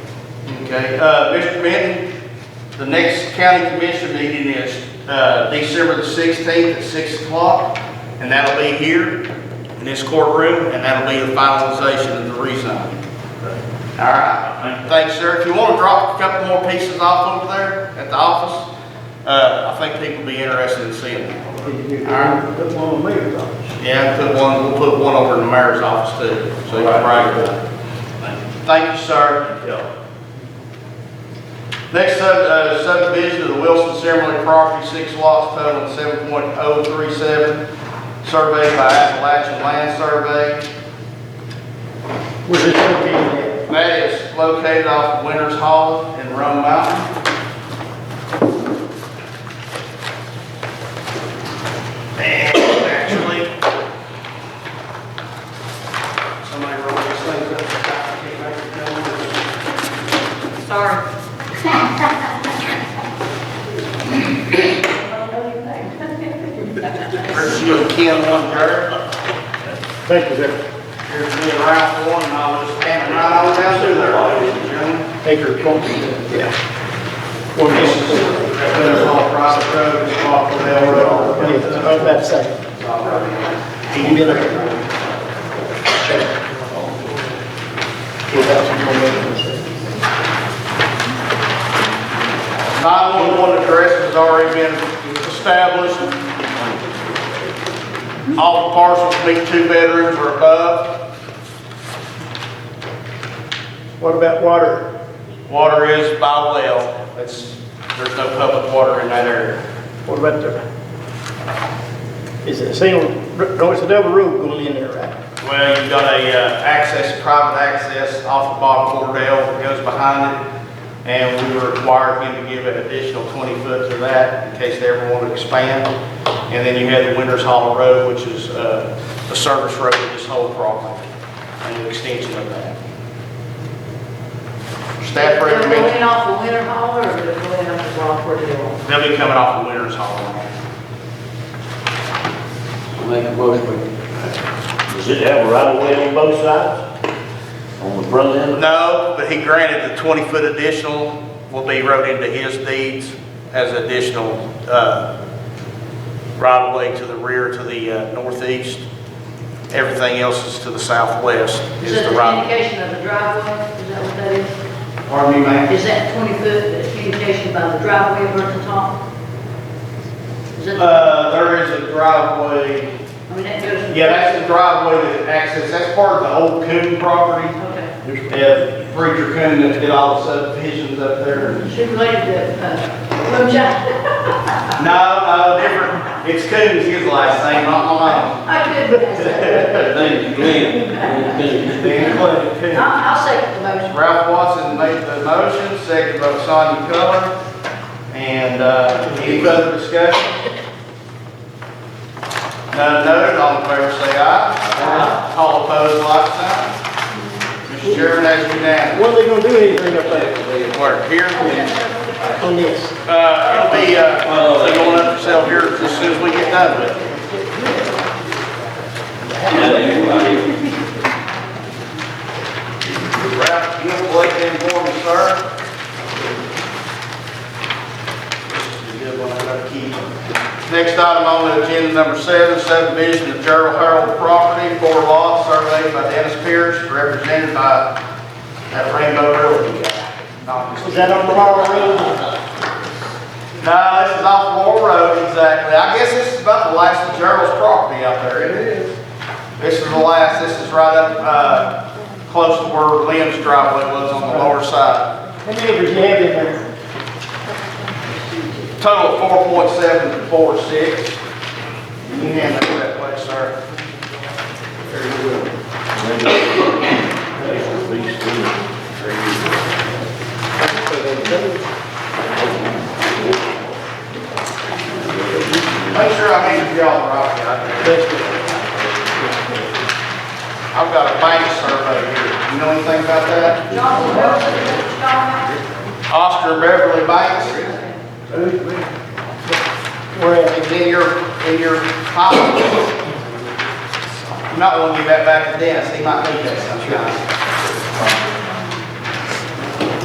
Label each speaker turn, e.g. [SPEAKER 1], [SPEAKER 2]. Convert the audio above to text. [SPEAKER 1] Okay, uh, Mr. Benton, the next county commission meeting is, uh, December the sixteenth at six o'clock, and that'll be here in this courtroom, and that'll be the finalization of the resign. All right, thanks, sir. If you wanna drop a couple more pieces off over there at the office, uh, I think people will be interested in seeing them. Alright.
[SPEAKER 2] Put one on me, though.
[SPEAKER 1] Yeah, put one, we'll put one over in the mayor's office too, so you can brag about it. Thank you, sir. Next sub- uh, subdivision of the Wilson Cemetery property, six lots totaling seven point oh three seven, surveyed by Appalachian Land Survey.
[SPEAKER 2] Where's this located
[SPEAKER 1] That is located off Winters Hall in Rome Mountain. And actually, somebody wrote these things up. I can't make it come with it.
[SPEAKER 3] Sorry.
[SPEAKER 1] Here's you and Ken one, Jared.
[SPEAKER 2] at? Thank you, sir.
[SPEAKER 1] Here's me and Ralph one, and I'll just hand it right on down through there, ladies and gentlemen.
[SPEAKER 2] Acre company.
[SPEAKER 1] Yeah.
[SPEAKER 2] One
[SPEAKER 1] This
[SPEAKER 2] acre.
[SPEAKER 1] is, that's all private road, it's off the Bell Road.
[SPEAKER 2] I was about to say,
[SPEAKER 1] It's all right.
[SPEAKER 2] you get a.
[SPEAKER 1] Nine-one-one address has already been established. All the parcels meet two bedrooms or above.
[SPEAKER 2] What about water?
[SPEAKER 1] Water is by well. That's, there's no public water in that area.
[SPEAKER 2] What about the? Is it a single, no, it's a double road going in there, right?
[SPEAKER 1] Well, you've got a, uh, access, private access off of Bob Cordell that goes behind it. And we were required him to give an additional twenty foot to that in case they ever want to expand. And then you have the Winters Hall Road, which is, uh, the service road of this whole property and the extension of that. Staff
[SPEAKER 3] They're
[SPEAKER 1] recommends,
[SPEAKER 3] going off of Winter Hall or they're going off of Rockford Hill?
[SPEAKER 1] they'll be coming off of Winters Hall Road.
[SPEAKER 4] Make a motion.
[SPEAKER 5] Does it have a right of way on both sides? On the front end?
[SPEAKER 1] No, but he granted the 20-foot additional will be wrote into his deeds as additional uh, right-of-way to the rear, to the uh, northeast. Everything else is to the southwest is
[SPEAKER 3] Is that
[SPEAKER 1] the
[SPEAKER 3] the
[SPEAKER 1] right.
[SPEAKER 3] indication of the driveway? Is that what that is?
[SPEAKER 1] Pardon me, ma'am?
[SPEAKER 3] Is that 20 foot, the indication by the driveway versus the top? Is that,
[SPEAKER 1] Uh, there is a driveway,
[SPEAKER 3] I mean, that goes.
[SPEAKER 1] yeah, that's the driveway that access, that's part of the old Coon property.
[SPEAKER 3] Okay.
[SPEAKER 1] Yeah, Preacher Coon that did all the subdivisions up there.
[SPEAKER 3] Should related to, uh, Moonshine.
[SPEAKER 1] No, no, different, it's Coon's his last name, not mine.
[SPEAKER 3] I could, pass that.
[SPEAKER 4] Thank you, Glenn.
[SPEAKER 1] Dan Clay Coon.
[SPEAKER 3] I'll, I'll second the motion.
[SPEAKER 1] Ralph Watson made the motion, second by Sonia Culler. And uh, any further discussion? None noted, all in favor say aye. Aye. All opposed, like sign. Mr. Chairman, that's unanimous.
[SPEAKER 2] What are they gonna do anything up there
[SPEAKER 1] Work here.
[SPEAKER 2] on this?
[SPEAKER 1] Uh, It'll be, uh, they're going up for sale here as soon as we get done with it. Ralph, you want to collect them for me, sir? This is a good one, I gotta keep it. Next item on the agenda, number seven, subdivision of Gerald Harold property, four lots, surveyed by Dennis Pierce, represented by that Rainbow Realty guy. Not Mr.
[SPEAKER 2] Is that on the water road?
[SPEAKER 1] No, this is off Moore Road, exactly. I guess this is about the last of Gerald's property out there. It is. This is the last, this is right up, uh, close to where Lynn's driveway was on the lower side.
[SPEAKER 2] How many acres you have in there?
[SPEAKER 1] Total four point seven four six. You can hand that to that place, sir. There you go. Make sure I hand you all the right one out there. I've got a bank survey here. You know anything about that?
[SPEAKER 3] John, what else is it? John,
[SPEAKER 1] Oscar Beverly Banks.
[SPEAKER 2] Where at?
[SPEAKER 1] It's in your, in your file. You might want to give that back to Dennis, he might need that sometime.